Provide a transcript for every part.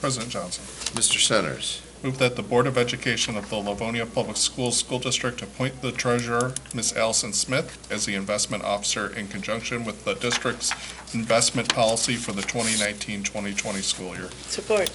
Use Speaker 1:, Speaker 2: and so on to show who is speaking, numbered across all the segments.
Speaker 1: President Johnson,
Speaker 2: Mr. Centers,
Speaker 1: move that the Board of Education of the Livonia Public Schools School District appoint the treasurer, Ms. Allison Smith, as the investment officer in conjunction with the district's investment policy for the 2019-2020 school year.
Speaker 3: Support.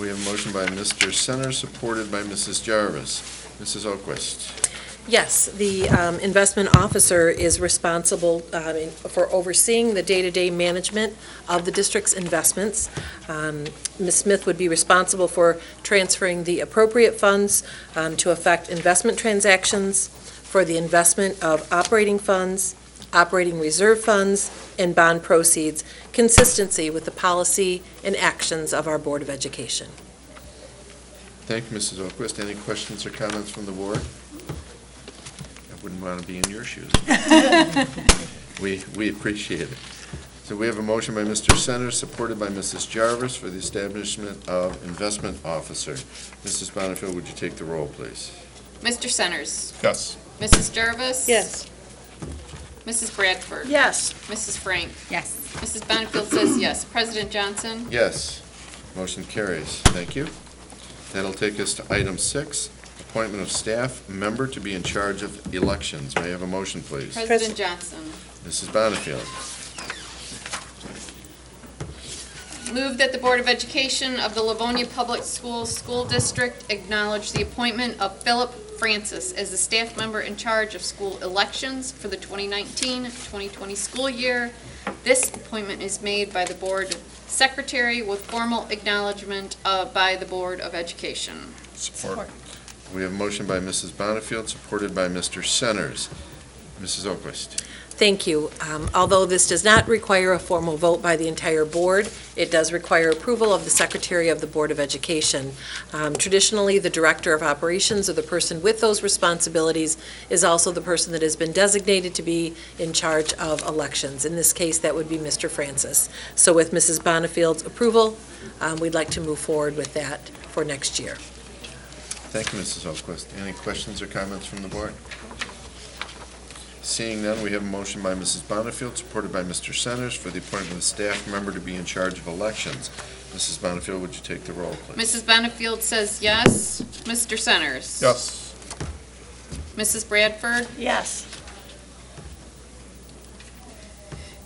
Speaker 2: we have a motion by Mr. Centers, supported by Mrs. Jarvis. Mrs. O'Quist,
Speaker 3: Yes, the um, investment officer is responsible um, in- for overseeing the day-to-day management of the district's investments. Um, Ms. Smith would be responsible for transferring the appropriate funds um, to affect investment transactions, for the investment of operating funds, operating reserve funds, and bond proceeds, consistency with the policy and actions of our Board of Education.
Speaker 2: thank you, Mrs. O'Quist. Any questions or comments from the board? I wouldn't want to be in your shoes. We, we appreciate it. So we have a motion by Mr. Centers, supported by Mrs. Jarvis, for the establishment of investment officer. Mrs. Bonnefield, would you take the roll, please?
Speaker 4: Mr. Centers?
Speaker 1: Yes.
Speaker 4: Mrs. Jarvis? Mrs. Bradford?
Speaker 3: Yes.
Speaker 4: Mrs. Frank?
Speaker 5: Yes.
Speaker 4: Mrs. Bonnefield says yes. President Johnson?
Speaker 2: Yes. Motion carries. Thank you. That'll take us to item six, appointment of staff member to be in charge of elections. May I have a motion, please?
Speaker 4: President Johnson?
Speaker 2: Mrs. Bonnefield.
Speaker 4: Move that the Board of Education of the Livonia Public Schools School District acknowledge the appointment of Philip Francis as the staff member in charge of school elections for the 2019-2020 school year. This appointment is made by the Board Secretary with formal acknowledgement uh, by the Board of Education.
Speaker 1: Support.
Speaker 2: We have a motion by Mrs. Bonnefield, supported by Mr. Centers. Mrs. O'Quist.
Speaker 3: Thank you. Um, Although this does not require a formal vote by the entire board, it does require approval of the Secretary of the Board of Education. Um, Traditionally, the Director of Operations or the person with those responsibilities is also the person that has been designated to be in charge of elections. In this case, that would be Mr. Francis. So with Mrs. Bonnefield's approval, um, we'd like to move forward with that for next year.
Speaker 2: Thank you, Mrs. O'Quist. Any questions or comments from the board? Seeing none, we have a motion by Mrs. Bonnefield, supported by Mr. Centers, for the appointment of staff member to be in charge of elections. Mrs. Bonnefield, would you take the roll, please?
Speaker 4: Mrs. Benefield says yes. Mr. Centers?
Speaker 1: Yes.
Speaker 4: Mrs. Bradford?
Speaker 5: Yes.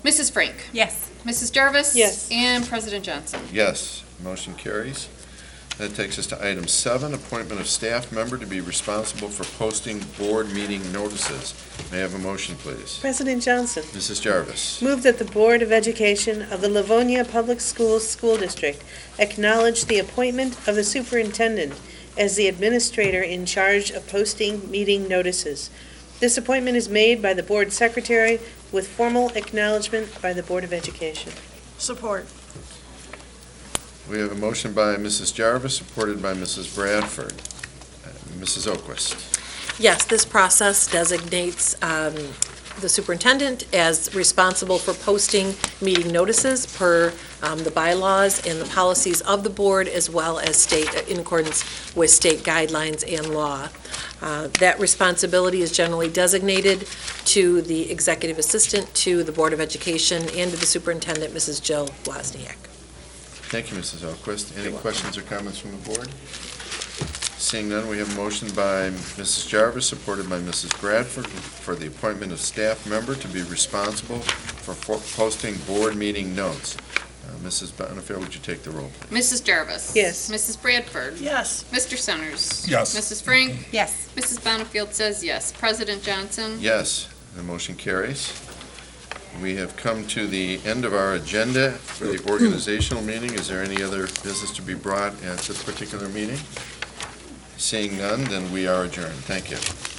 Speaker 4: Mrs. Frank?
Speaker 5: Yes.
Speaker 4: Mrs. Jarvis?
Speaker 3: Yes.
Speaker 4: And President Johnson?
Speaker 2: Yes, motion carries. That takes us to item seven, appointment of staff member to be responsible for posting board meeting notices. May I have a motion, please?
Speaker 6: President Johnson,
Speaker 2: Mrs. Jarvis.
Speaker 6: move that the Board of Education of the Livonia Public Schools School District acknowledge the appointment of the superintendent as the administrator in charge of posting meeting notices. This appointment is made by the Board Secretary with formal acknowledgement by the Board of Education.
Speaker 5: Support.
Speaker 2: We have a motion by Mrs. Jarvis, supported by Mrs. Bradford. Uh, Mrs. Oquist.
Speaker 3: Yes, this process designates um, the superintendent as responsible for posting meeting notices per um, the bylaws and the policies of the board, as well as state, uh, in accordance with state guidelines and law. Uh, That responsibility is generally designated to the executive assistant, to the Board of Education, and to the superintendent, Mrs. Jill Wozniak.
Speaker 2: Thank you, Mrs. Oquist. Any questions or comments from the board? Seeing none, we have a motion by Mrs. Jarvis, supported by Mrs. Bradford, for the appointment of staff member to be responsible for fo- posting board meeting notes. Uh, Mrs. Bonnefield, would you take the roll?
Speaker 4: Mrs. Jarvis?
Speaker 6: Yes.
Speaker 4: Mrs. Bradford?
Speaker 5: Yes.
Speaker 4: Mr. Centers?
Speaker 1: Yes.
Speaker 4: Mrs. Frank?
Speaker 5: Yes.
Speaker 4: Mrs. Benefield says yes. President Johnson?
Speaker 2: Yes, the motion carries. We have come to the end of our agenda for the organizational meeting. Is there any other business to be brought at this particular meeting? Seeing none, then we are adjourned. Thank you.